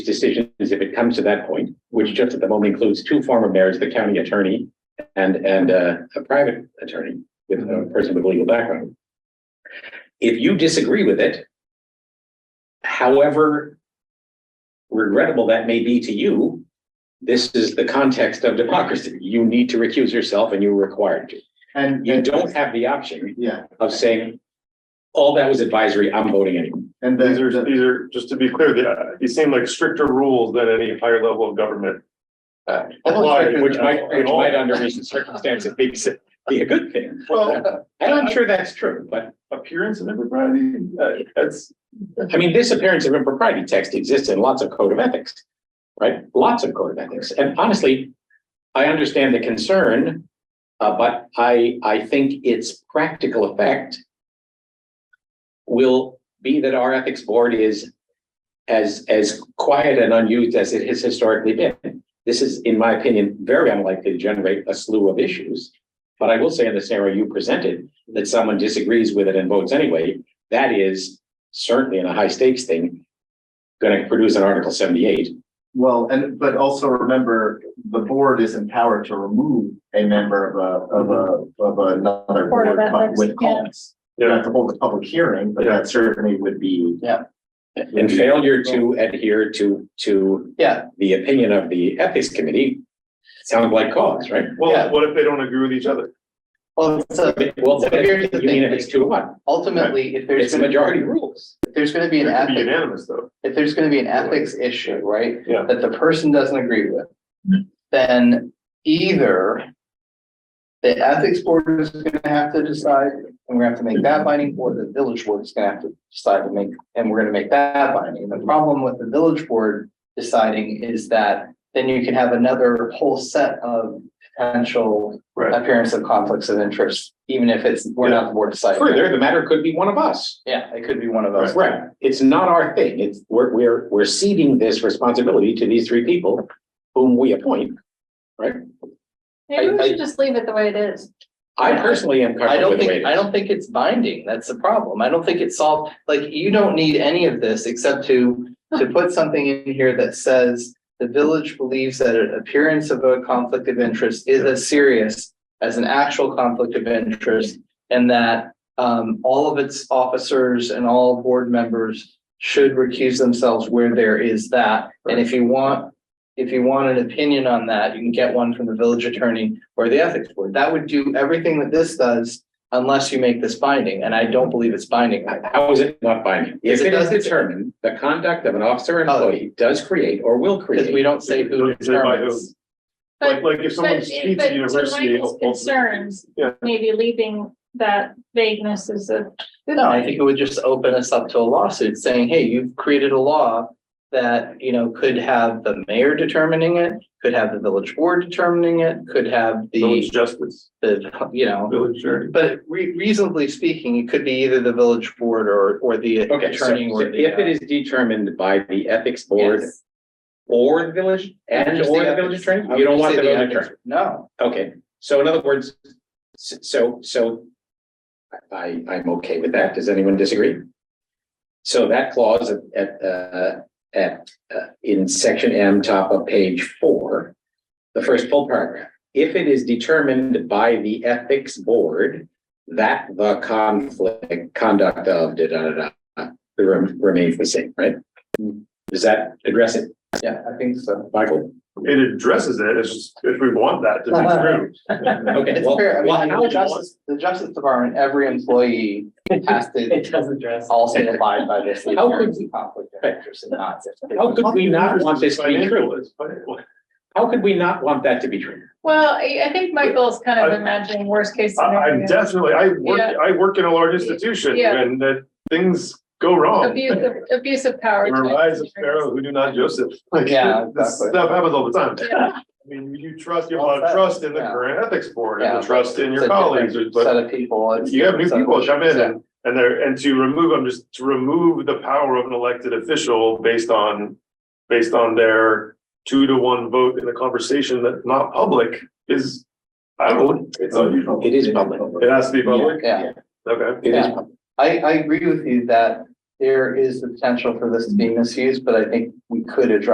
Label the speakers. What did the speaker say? Speaker 1: decisions, if it comes to that point, which just at the moment includes two former mayors, the county attorney and, and uh, a private attorney with a person with legal background. If you disagree with it, however regrettable that may be to you, this is the context of democracy. You need to recuse yourself and you're required to.
Speaker 2: And.
Speaker 1: You
Speaker 2: and-
Speaker 1: don't have the option
Speaker 2: Yeah,
Speaker 1: of saying, all that was advisory, I'm voting anyway.
Speaker 2: and
Speaker 3: These
Speaker 2: the,
Speaker 3: are,
Speaker 2: the-
Speaker 3: these are, just to be clear, they, uh, these seem like stricter rules than any higher level of government. uh,
Speaker 2: I don't
Speaker 3: apply
Speaker 2: think it-
Speaker 3: at
Speaker 1: Which might,
Speaker 3: all.
Speaker 1: which might under recent circumstances be, be a good thing.
Speaker 3: Well,
Speaker 1: I'm not sure that's true, but
Speaker 3: appearance of impropriety, uh, that's,
Speaker 1: I mean, this appearance of impropriety text exists in lots of code of ethics. Right? Lots of code of ethics. And honestly, I understand the concern. Uh, but I, I think its practical effect. Will be that our ethics board is. As, as quiet and unused as it has historically been. This is, in my opinion, very unlikely to generate a slew of issues. But I will say in the scenario you presented, that someone disagrees with it and votes anyway, that is certainly in a high stakes thing, gonna produce an Article seventy-eight.
Speaker 2: well, and, but also remember, the board is empowered to remove a member of a, of a, of another
Speaker 4: Board of
Speaker 2: board
Speaker 4: Ethics, yeah.
Speaker 2: with cause. You don't have to hold a public hearing, but that certainly would be.
Speaker 1: And failure to adhere to, to
Speaker 2: Yeah.
Speaker 1: the opinion of the Ethics Committee sounds like cause, right?
Speaker 3: well,
Speaker 5: Yeah.
Speaker 3: what if they don't agree with each other?
Speaker 5: Well, so
Speaker 1: Well, then you mean if it's two to one,
Speaker 5: ultimately, if there's,
Speaker 1: it's
Speaker 5: gonna-
Speaker 1: majority rules.
Speaker 5: if there's gonna be
Speaker 3: It
Speaker 5: an
Speaker 3: could be
Speaker 5: ethic,
Speaker 3: unanimous, though.
Speaker 5: if there's gonna be an ethics issue, right?
Speaker 3: Yeah.
Speaker 5: That the person doesn't agree with, then either the ethics board is gonna have to decide, and we're gonna have to make that binding, or the village board is gonna have to decide to make, and we're gonna make that binding. The problem with the village board deciding is that then you can have another whole set of potential
Speaker 3: Right.
Speaker 5: appearance of conflicts of interest, even if it's, we're not the board deciding.
Speaker 1: Further, the matter could be one of us.
Speaker 5: Yeah, it could be one of those.
Speaker 1: Right, it's not our thing. It's, we're, we're, we're ceding this responsibility to these three people whom we appoint.
Speaker 4: Maybe
Speaker 5: I-
Speaker 4: we
Speaker 5: I-
Speaker 4: should just leave it the way it is.
Speaker 1: I personally am
Speaker 5: I
Speaker 1: comfortable
Speaker 5: don't
Speaker 1: with the way it
Speaker 5: think, I
Speaker 1: is.
Speaker 5: don't think it's binding. That's the problem. I don't think it's solved. Like, you don't need any of this except to, to put something in here that says the village believes that an appearance of a conflict of interest is as serious as an actual conflict of interest and that um, all of its officers and all board members should recuse themselves where there is that. And if you want, if you want an opinion on that, you can get one from the village attorney or the ethics board. That would do everything that this does unless you make this binding, and I don't believe it's binding.
Speaker 1: How is it not binding? If
Speaker 5: Because it
Speaker 1: it is
Speaker 5: doesn't- Oh.
Speaker 1: determined, the conduct of an officer or employee does create or will
Speaker 5: Because we
Speaker 1: create.
Speaker 5: don't say who
Speaker 3: Say by who.
Speaker 5: determines.
Speaker 3: Like,
Speaker 4: But,
Speaker 3: like if someone
Speaker 4: but, it-
Speaker 3: speaks
Speaker 4: but
Speaker 3: at
Speaker 4: to
Speaker 3: university.
Speaker 4: Michael's
Speaker 3: ultimately-
Speaker 4: concerns,
Speaker 3: Yeah.
Speaker 4: maybe leaving that vagueness is a,
Speaker 5: No, I think it would just open us up to a lawsuit saying, hey, you've created a law that, you know, could have the mayor determining it, could have the village board determining it, could have
Speaker 3: Village
Speaker 5: the,
Speaker 3: justice,
Speaker 5: the, you know.
Speaker 3: village jury.
Speaker 5: But re- reasonably speaking, it could be either the village board or, or the
Speaker 1: Okay, so
Speaker 5: attorney
Speaker 1: so
Speaker 5: or the. uh,
Speaker 1: if it is determined by the ethics board
Speaker 5: Yes.
Speaker 1: or the village and
Speaker 5: Just
Speaker 1: or the
Speaker 5: ethics.
Speaker 1: village
Speaker 5: I
Speaker 1: attorney,
Speaker 5: would
Speaker 1: you don't
Speaker 5: just
Speaker 1: want
Speaker 5: say
Speaker 1: the village
Speaker 5: ethics.
Speaker 1: attorney.
Speaker 5: No,
Speaker 1: Okay, so in other words, s- so, so I, I'm okay with that. Does anyone disagree? So that clause at, at, uh, at, uh, in section M, top of page four, the first full paragraph. If it is determined by the ethics board that the conflict, conduct of da, da, da, da, the rem- remains the same, right? Does that address it,
Speaker 5: Mm. yeah, I think so.
Speaker 1: Michael?
Speaker 3: It addresses it, it's just, if we want that to
Speaker 4: Uh-huh.
Speaker 3: be true.
Speaker 1: Okay,
Speaker 5: It's
Speaker 1: well,
Speaker 5: fair,
Speaker 1: well,
Speaker 5: I mean,
Speaker 1: how
Speaker 5: the
Speaker 1: does-
Speaker 5: justice, the justice department, every employee has to
Speaker 6: It does address.
Speaker 5: also abide by this.
Speaker 1: How could
Speaker 5: appearance of conflict of interest and not-
Speaker 1: How could we not want this to be true?
Speaker 3: Financial, it's financial.
Speaker 1: How could we not want that to be true?
Speaker 4: well, I, I think Michael's kind of
Speaker 3: I-
Speaker 4: imagining worst case
Speaker 3: I, I'm
Speaker 4: scenario.
Speaker 3: definitely, I work,
Speaker 4: Yeah.
Speaker 3: I work in a large institution
Speaker 4: Yeah.
Speaker 3: and that things go wrong.
Speaker 4: Abuse, of- abuse of power.
Speaker 3: We're
Speaker 4: type
Speaker 3: rise of
Speaker 4: scenarios.
Speaker 3: Pharaoh who do not Joseph. Like,
Speaker 5: Yeah,
Speaker 3: This
Speaker 5: exactly.
Speaker 3: stuff happens all the time.
Speaker 4: Yeah.
Speaker 3: I mean, you trust, you have a
Speaker 5: Well
Speaker 3: lot of
Speaker 5: said.
Speaker 3: trust in the
Speaker 5: Yeah.
Speaker 3: current ethics board
Speaker 5: Yeah.
Speaker 3: and the trust in
Speaker 5: It's
Speaker 3: your
Speaker 5: a
Speaker 3: colleagues,
Speaker 5: different
Speaker 3: but
Speaker 5: Set of people. it's
Speaker 3: you have new
Speaker 5: different
Speaker 3: people
Speaker 5: set of-
Speaker 3: come in and, and they're, and to remove them, just to remove the power of an elected official based on, based on their two to one vote in a conversation that's not public is, I don't, it's unusual.
Speaker 1: It is public.
Speaker 3: It has to be public?
Speaker 5: Yeah.
Speaker 3: Okay.
Speaker 1: It is
Speaker 5: Yeah.
Speaker 1: public.
Speaker 5: I, I agree with you that there is the potential for this to be misused, but I think we could address